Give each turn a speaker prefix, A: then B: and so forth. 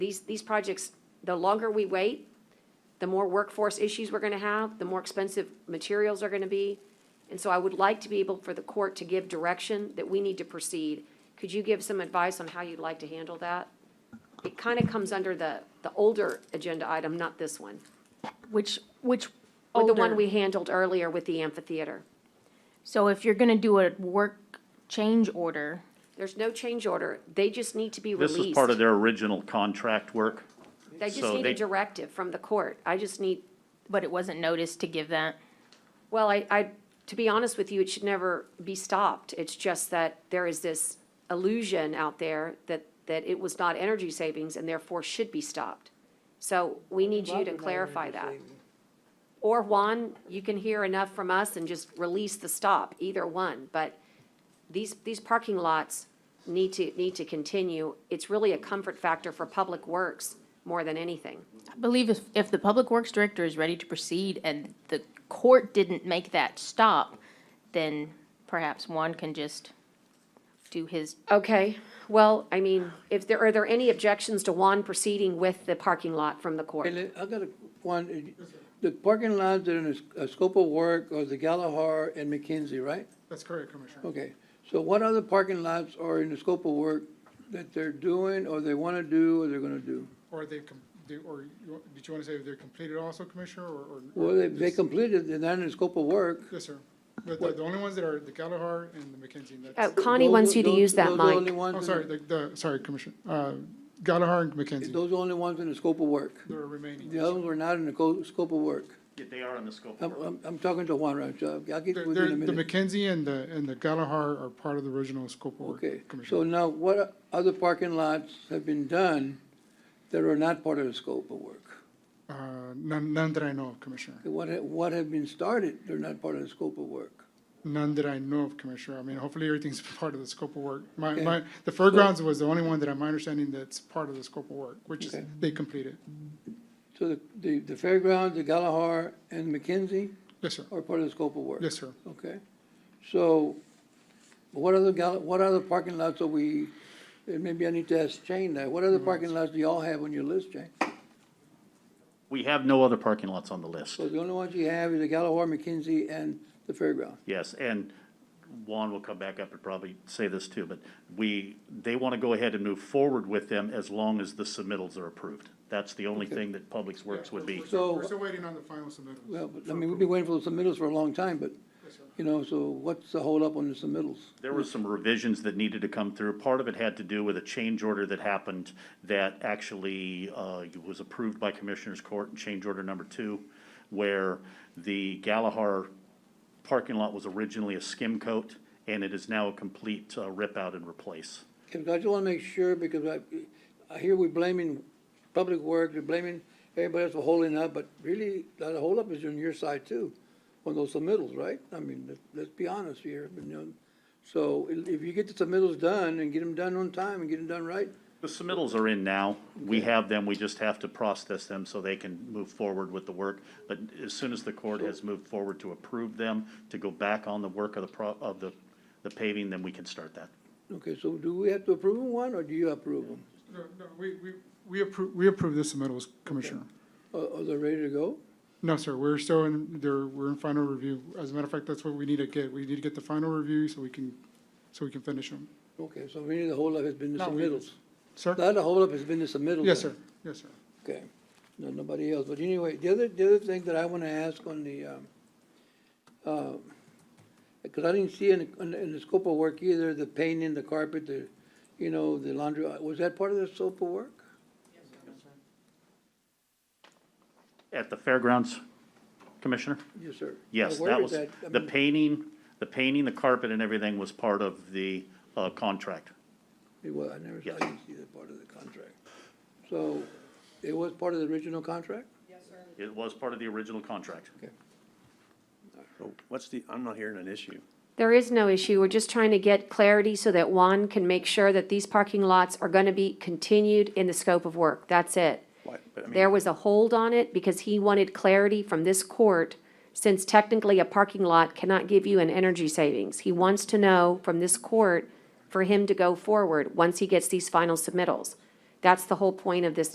A: These, these projects, the longer we wait, the more workforce issues we're gonna have, the more expensive materials are gonna be. And so I would like to be able for the court to give direction that we need to proceed. Could you give some advice on how you'd like to handle that? It kind of comes under the, the older agenda item, not this one,
B: Which, which
A: or
B: older?
A: the one we handled earlier with the amphitheater.
B: So if you're gonna do a work change order,
A: There's no change order. They just need to be
C: This
A: released.
C: was part of their original contract work.
A: They just
C: so
A: need a
C: they-
A: directive from the court. I just need,
B: but it wasn't noticed to give that.
A: well, I, I, to be honest with you, it should never be stopped. It's just that there is this illusion out there that, that it was not energy savings and therefore should be stopped. So we need you to clarify that. Or Juan, you can hear enough from us and just release the stop, either one. But these, these parking lots need to, need to continue. It's really a comfort factor for Public Works more than anything.
B: I believe if, if the Public Works Director is ready to proceed and the court didn't make that stop, then perhaps one can just do his,
A: Okay, well, I mean, if there, are there any objections to Juan proceeding with the parking lot from the court?
D: And then I got a, one, uh, the parking lots that are in the s- uh, scope of work are the Galahar and McKenzie, right?
E: That's correct, Commissioner.
D: Okay, so what other parking lots are in the scope of work that they're doing, or they wanna do, or they're gonna do?
E: Or they've, com- do- or you- did you want to say they're completed also, Commissioner, or? or-
D: Well, they, they completed, they're not in the scope of work.
E: Yes, sir. But the, the only ones that are the Galahar and the McKenzie, and
A: Oh,
E: that's,
A: Connie
D: Those-
A: wants you to
D: those-
A: use that
D: those are the only
A: mic.
D: ones
E: oh,
D: in
E: sorry,
D: the-
E: the, the, sorry, Commissioner, uh, Galahar and McKenzie,
D: Those are the only ones in the scope of work.
E: they're remaining.
D: The others were not in the co- scope of work.
C: Yeah, they are in the scope
D: I'm, I'm, I'm talking to Juan right now, I'll get
E: They're-
D: with you in a
E: they're- The
D: minute.
E: McKenzie and the, and the Galahar are part of the original scope of work,
D: Okay, so
E: Commissioner.
D: now what other parking lots have been done that are not part of the scope of work?
E: Uh, none, none that I know of, Commissioner.
D: What, ha- what have been started, they're not part of the scope of work.
E: None that I know of, Commissioner. I mean, hopefully everything's part of the scope of work. My,
D: Okay.
E: my, the fairgrounds was the only one that I'm understanding that's part of the scope of work, which is,
D: Okay.
E: they completed.
D: So the- the, the fairgrounds, the Galahar, and McKenzie
E: Yes, sir.
D: are part of the scope of work?
E: Yes, sir.
D: Okay, so what other, gal- what other parking lots are we, and maybe I need to ask Jane that, what other parking lots do y'all have on your list, Jane?
C: We have no other parking lots on the list.
D: So the only ones you have is the Galahar, McKenzie, and the fairground.
C: Yes, and Juan will come back up and probably say this too, but we, they want to go ahead and move forward with them as long as the submittals are approved. That's the only thing that Public Works would be.
D: So-
E: We're still waiting on the final submittals.
D: Well, but, I mean, we've been waiting for the submittals for a long time, but, you know, so what's the holdup on the submittals?
C: There were some revisions that needed to come through. Part of it had to do with a change order that happened that actually uh, was approved by Commissioners Court in change order number two, where the Galahar parking lot was originally a skim coat, and it is now a complete uh, rip out and replace.
D: Okay, because I just want to make sure, because I, I hear we're blaming public works, we're blaming everybody else for holding up, but really, the holdup is on your side too, on those submittals, right? I mean, let- let's be honest here, you know, so if if you get the submittals done and get them done on time and get them done right,
C: The submittals are in now. We have them. We just have to process them so they can move forward with the work. But as soon as the court has moved forward to approve them, to go back on the work of the, pro- of the the paving, then we can start that.
D: okay, so do we have to approve them one, or do you approve them?
E: No, no, we, we, we approve, we approve the submittals, Commissioner.
D: Are, are they ready to go?
E: No, sir, we're still in, there, we're in final review. As a matter of fact, that's what we need to get. We need to get the final review so we can, so we can finish them.
D: Okay, so really the holdup has been the
E: Not we-
D: submittals.
E: Sir?
D: The other holdup has been the submittals.
E: Yes,
D: then.
E: sir. Yes, sir.
D: Okay, no, nobody else, but anyway, the other, the other thing that I wanna ask on the, um, uh, cause I didn't see in, the- in, the- in the scope of work either, the painting, the carpet, the, you know, the laundry, uh, was that part of the scope of work?
C: At the fairgrounds, Commissioner?
D: Yes, sir.
C: Yes,
D: Now, where
C: that
D: is
C: was,
D: I
C: the
D: mean,
C: painting, the painting, the carpet and everything was part of the uh, contract.
D: It was, I never, I
C: Yes.
D: didn't see that part of the contract. So, it was part of the original contract?
C: It was part of the original contract.
F: So What's the, I'm not hearing an issue.
A: There is no issue. We're just trying to get clarity so that Juan can make sure that these parking lots are gonna be continued in the scope of work. That's it.
F: Why- but I mean-
A: There was a hold on it because he wanted clarity from this court, since technically a parking lot cannot give you an energy savings. He wants to know from this court for him to go forward once he gets these final submittals. That's the whole point of this